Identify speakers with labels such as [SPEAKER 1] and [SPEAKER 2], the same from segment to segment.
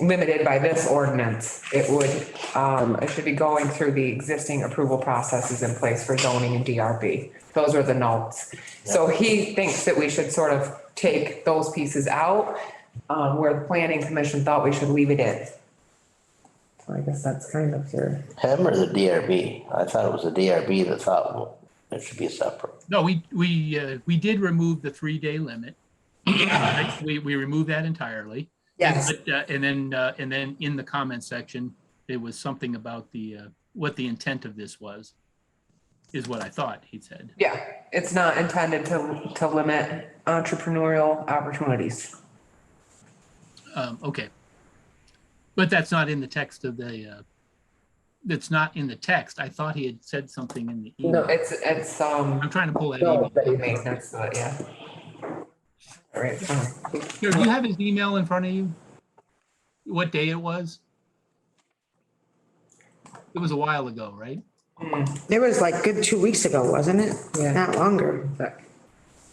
[SPEAKER 1] limited by this ordinance. It would, um, it should be going through the existing approval processes in place for zoning and DRB. Those are the notes. So he thinks that we should sort of take those pieces out, um, where the planning commission thought we should leave it in. So I guess that's kind of your,
[SPEAKER 2] Him or the DRB? I thought it was the DRB that thought well, it should be separate.
[SPEAKER 3] No, we, we, uh, we did remove the three-day limit. We, we removed that entirely.
[SPEAKER 4] Yes,
[SPEAKER 3] But, uh, and then, uh, and then in the comment section, there was something about the, uh, what the intent of this was, is what I thought he said.
[SPEAKER 1] yeah, it's not intended to, to limit entrepreneurial opportunities.
[SPEAKER 3] Um, okay. But that's not in the text of the, uh, that's not in the text. I thought he had said something in the
[SPEAKER 1] No,
[SPEAKER 3] email.
[SPEAKER 1] it's, it's, um,
[SPEAKER 3] I'm trying to pull that
[SPEAKER 1] no,
[SPEAKER 3] email.
[SPEAKER 1] but it makes sense to it, yeah. All right, fine.
[SPEAKER 3] Here, Do you have his email in front of you? What day it was? It was a while ago, right?
[SPEAKER 4] it was like good two weeks ago, wasn't it?
[SPEAKER 1] Yeah.
[SPEAKER 4] Not longer.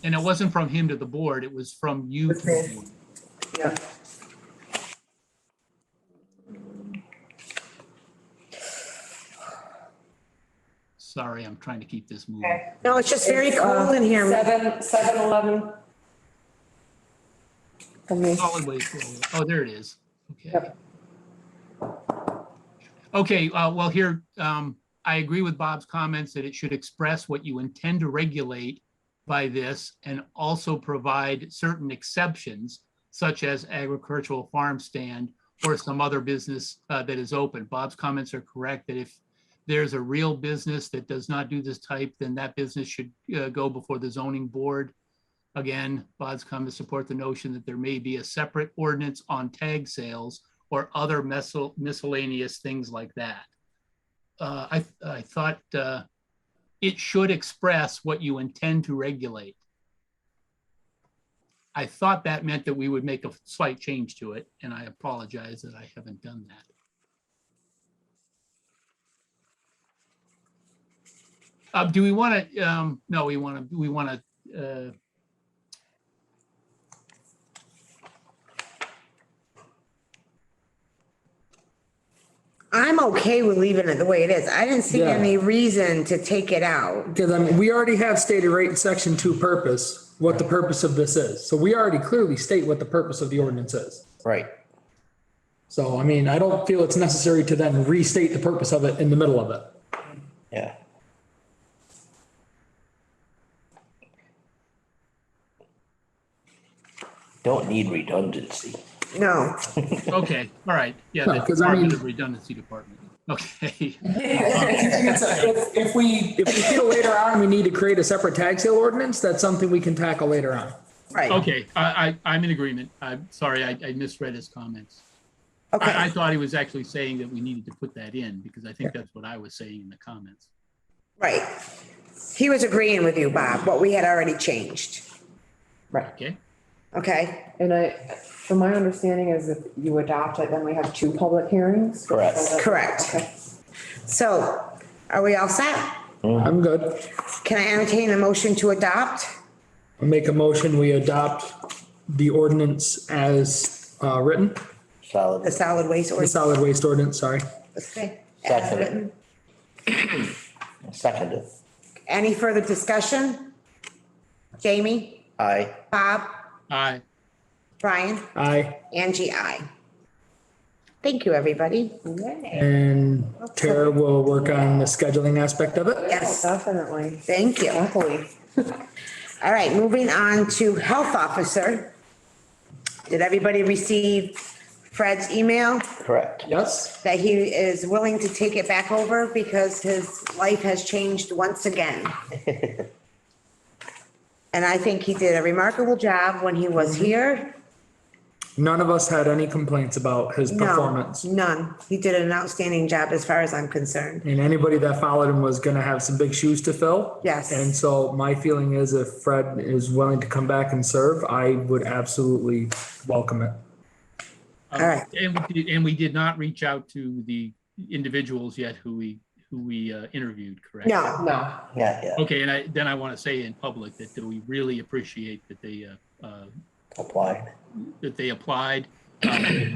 [SPEAKER 3] And it wasn't from him to the board, it was from you. to the board.
[SPEAKER 1] Yeah.
[SPEAKER 3] Sorry, I'm trying to keep this moving.
[SPEAKER 1] Okay.
[SPEAKER 4] No, it's just very
[SPEAKER 1] It's, uh,
[SPEAKER 4] cold in here.
[SPEAKER 1] Seven, seven eleven.
[SPEAKER 3] Solid waste. roll. Oh, there it is. Okay. Okay, uh, well, here, um, I agree with Bob's comments that it should express what you intend to regulate by this and also provide certain exceptions such as agricultural farm stand or some other business uh, that is open. Bob's comments are correct that if there's a real business that does not do this type, then that business should uh, go before the zoning board. Again, Bod's come to support the notion that there may be a separate ordinance on tag sales or other miscel- miscellaneous things like that. Uh, I, I thought, uh, it should express what you intend to regulate. I thought that meant that we would make a slight change to it, and I apologize that I haven't done that. Uh, do we want to, um, no, we want to, we want to, uh,
[SPEAKER 4] I'm okay with leaving it the way it is. I didn't see
[SPEAKER 5] Yeah.
[SPEAKER 4] any reason to take it out.
[SPEAKER 5] Because I mean, we already have stated right in section two purpose, what the purpose of this is. So we already clearly state what the purpose of the ordinance is.
[SPEAKER 2] Right.
[SPEAKER 5] So I mean, I don't feel it's necessary to then restate the purpose of it in the middle of it.
[SPEAKER 2] Yeah. Don't need redundancy.
[SPEAKER 4] No,
[SPEAKER 3] Okay, all right, yeah,
[SPEAKER 5] No,
[SPEAKER 3] the
[SPEAKER 5] 'cause I mean-
[SPEAKER 3] Department of Redundancy Department, okay.
[SPEAKER 5] If if we, if we feel later on we need to create a separate tag sale ordinance, that's something we can tackle later on.
[SPEAKER 4] right.
[SPEAKER 3] Okay, I, I, I'm in agreement, I'm sorry, I, I misread his comments. I, I
[SPEAKER 4] Okay,
[SPEAKER 3] thought he was actually saying that we needed to put that in, because I think that's what I was saying in the comments.
[SPEAKER 4] right. He was agreeing with you, Bob, what we had already changed.
[SPEAKER 3] Okay,
[SPEAKER 4] Okay,
[SPEAKER 1] And I, from my understanding is if you adopt it, then we have two public hearings?
[SPEAKER 2] Correct.
[SPEAKER 1] So that-
[SPEAKER 4] correct.
[SPEAKER 1] Okay.
[SPEAKER 4] So are we all set?
[SPEAKER 5] I'm good.
[SPEAKER 4] Can I entertain a motion to adopt?
[SPEAKER 5] I'll Make a motion, we adopt the ordinance as uh, written,
[SPEAKER 4] The
[SPEAKER 2] Solid.
[SPEAKER 4] solid waste
[SPEAKER 5] the
[SPEAKER 4] ordinance?
[SPEAKER 5] solid waste ordinance, sorry.
[SPEAKER 4] Okay. As
[SPEAKER 2] Second.
[SPEAKER 4] written.
[SPEAKER 2] Seconded.
[SPEAKER 4] Any further discussion? Jamie,
[SPEAKER 2] Aye.
[SPEAKER 4] Bob,
[SPEAKER 3] I, uh,
[SPEAKER 4] Brian,
[SPEAKER 5] Aye.
[SPEAKER 4] Angie, I. Thank you, everybody.
[SPEAKER 5] And Tara will work on the scheduling aspect of it.
[SPEAKER 4] Yes,
[SPEAKER 1] Definitely,
[SPEAKER 4] thank you.
[SPEAKER 1] happily.
[SPEAKER 4] All right, moving on to health officer. Did everybody receive Fred's email
[SPEAKER 2] Correct.
[SPEAKER 5] Yes?
[SPEAKER 4] that he is willing to take it back over because his life has changed once again? And I think he did a remarkable job when he was
[SPEAKER 5] Mm-hmm.
[SPEAKER 4] here.
[SPEAKER 5] None of us had any complaints about his
[SPEAKER 4] No,
[SPEAKER 5] performance.
[SPEAKER 4] none. He did an outstanding job as far as I'm concerned.
[SPEAKER 5] And anybody that followed him was gonna have some big shoes to fill.
[SPEAKER 4] Yes.
[SPEAKER 5] And so my feeling is if Fred is willing to come back and serve, I would absolutely welcome it.
[SPEAKER 3] um,
[SPEAKER 4] All right.
[SPEAKER 3] and we, did- and we did not reach out to the individuals yet who we, who we uh, interviewed, correct?
[SPEAKER 4] No,
[SPEAKER 1] No,
[SPEAKER 2] Yeah, yeah.
[SPEAKER 3] Okay, and I, then I want to say in public that we really appreciate that they, uh, uh,
[SPEAKER 2] Applied.
[SPEAKER 3] that they applied, um,